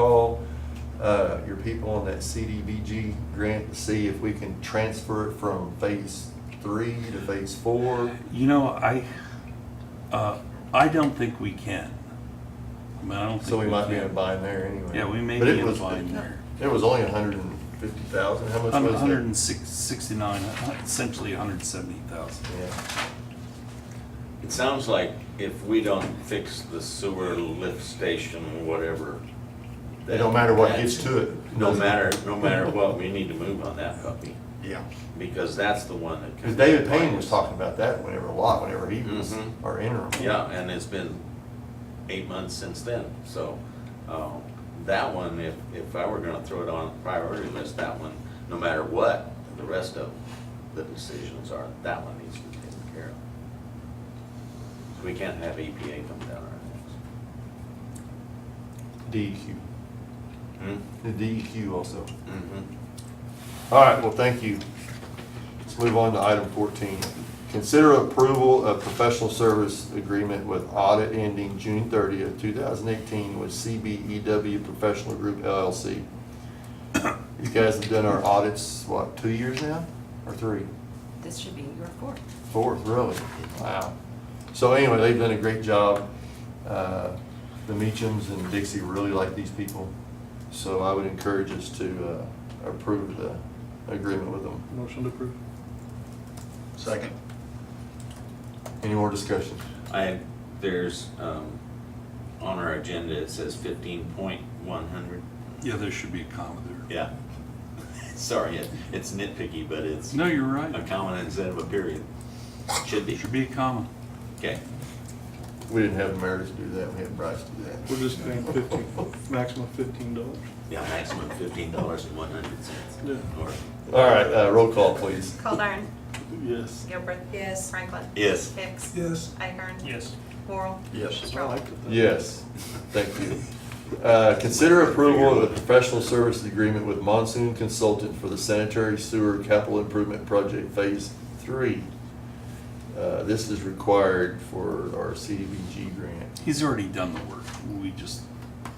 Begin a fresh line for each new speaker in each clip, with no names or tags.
call uh, your people on that CDBG grant to see if we can transfer it from phase three to phase four?
You know, I, uh, I don't think we can. I mean, I don't think.
So we might be in a
can.
bind there anyway.
Yeah, we may
But it
be in a
was-
bind there.
It was only hundred and fifty thousand, how much was it?
Hundred and six, sixty-nine, uh, essentially hundred and seventy thousand.
Yeah.
It sounds like if we don't fix the sewer lift station, whatever.
It don't matter what gets to it.
No matter, no matter what, we need to move on that puppy,
Yeah.
because that's the one that.
Because David Payne was talking about that whenever, a lot, whenever he was
Mhm.
our interim.
Yeah, and it's been eight months since then, so, uh, that one, if, if I were gonna throw it on the priority list, that one, no matter what, the rest of the decisions are, that one needs to be taken care of. So we can't have EPA come down our
DEQ,
necks.
E the DEQ also.
Mm-hmm.
All right, well, thank you. Let's move on to item fourteen. Consider approval of professional service agreement with audit ending June thirtieth, two thousand eighteen with CBEW Professional Group LLC. You guys have done our audits, what, two years now, or three?
This should be your fourth.
Fourth, really? Wow. So anyway, they've done a great job. Uh, The Meachams and Dixie really like these people, so I would encourage us to uh, approve the agreement with them.
Motion to approve.
Second.
Any more discussion?
I, there's, um, on our agenda, it says fifteen point one hundred.
Yeah, there should be a comma there.
Yeah. Sorry, it- it's nitpicky, but it's
No, you're
a
right.
comma instead of a period. Should
There
be.
should be a comma.
Okay.
We didn't have Meredith do that, we had Bryce do that.
We're just paying fifteen, maximum fifteen dollars.
Yeah, maximum fifteen dollars and one hundred cents.
Yeah.
Or,
All right, uh, roll call, please.
Calderon.
Yes.
Gilbert. Yes. Franklin.
Yes.
Hicks.
Yes.
Iker.
Yes.
Oral.
Yes.
I liked it.
Yes, thank you. Uh, Consider approval of a professional services agreement with Monsoon Consultant for the sanitary sewer capital improvement project phase three. Uh, This is required for our CDBG grant.
He's already done the work. We just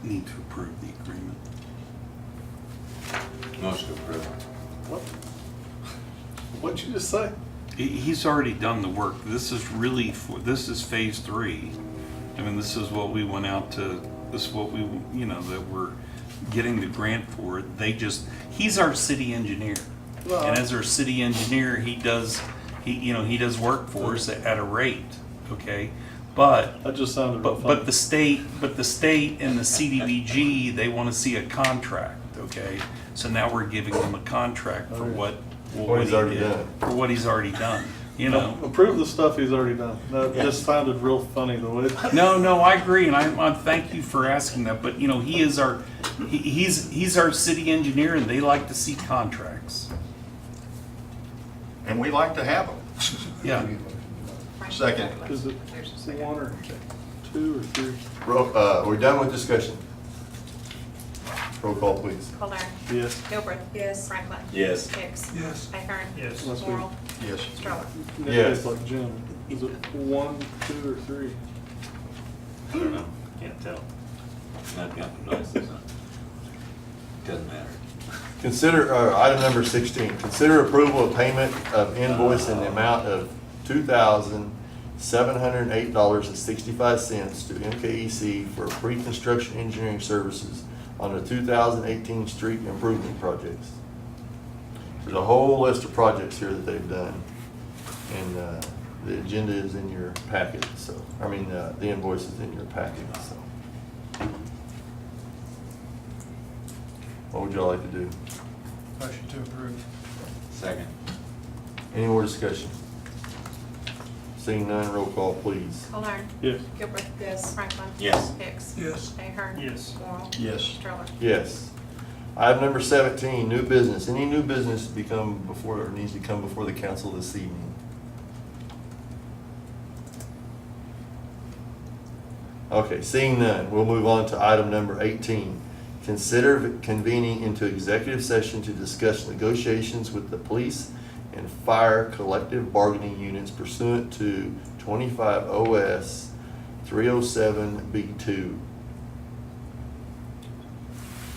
need to approve the agreement.
motion approved.
What? What'd you just say?
He, he's already done the work. This is really for, this is phase three. I mean, this is what we went out to, this is what we, you know, that we're getting the grant for. They just, he's our city engineer. And as our city engineer, he does, he, you know, he does work for us at a rate, okay? But
That just sounded real
but, but the
funny.
state, but the state and the CDBG, they want to see a contract, okay? So now we're giving them a contract for what,
What
what
he's
he
already
did,
done.
for what he's already done, you know?
Approve the stuff he's already done. That just sounded real funny the way.
No, no, I agree, and I, I thank you for asking that, but, you know, he is our, he- he's, he's our city engineer, and they like to see contracts.
And we like to have them.
Yeah,
Franklin.
Second.
Is it
There's a second.
one or two or three?
Ro- uh, We're done with discussion. Roll call, please.
Calderon.
Yes.
Gilbert. Yes. Franklin.
Yes.
Hicks.
Yes.
Iker.
Yes.
Oral.
Yes.
Stroller.
Yes.
It's like Jim. Is it one, two, or three?
I don't know, can't tell. I've got the noises on. Doesn't matter.
Consider, uh, item number sixteen, consider approval of payment of invoice in the amount of two thousand seven hundred and eight dollars and sixty-five cents to MKEC for pre-construction engineering services on the two thousand eighteen street improvement projects. There's a whole list of projects here that they've done, and, uh, the agenda is in your packet, so, I mean, uh, the invoice is in your packet, so. What would y'all like to do?
Motion to approve.
Second.
Any more discussion? Seeing none, roll call, please.
Calderon.
Yes.
Gilbert. Yes. Franklin.
Yes.
Hicks.
Yes.
Iker.
Yes.
Oral.
Yes.
Stroller.
Yes. Item number seventeen, new business. Any new business to become before, or needs to come before the council this evening? Okay, seeing none, we'll move on to item number eighteen. Consider convening into executive session to discuss negotiations with the police and fire collective bargaining units pursuant to twenty-five OS three oh seven B two.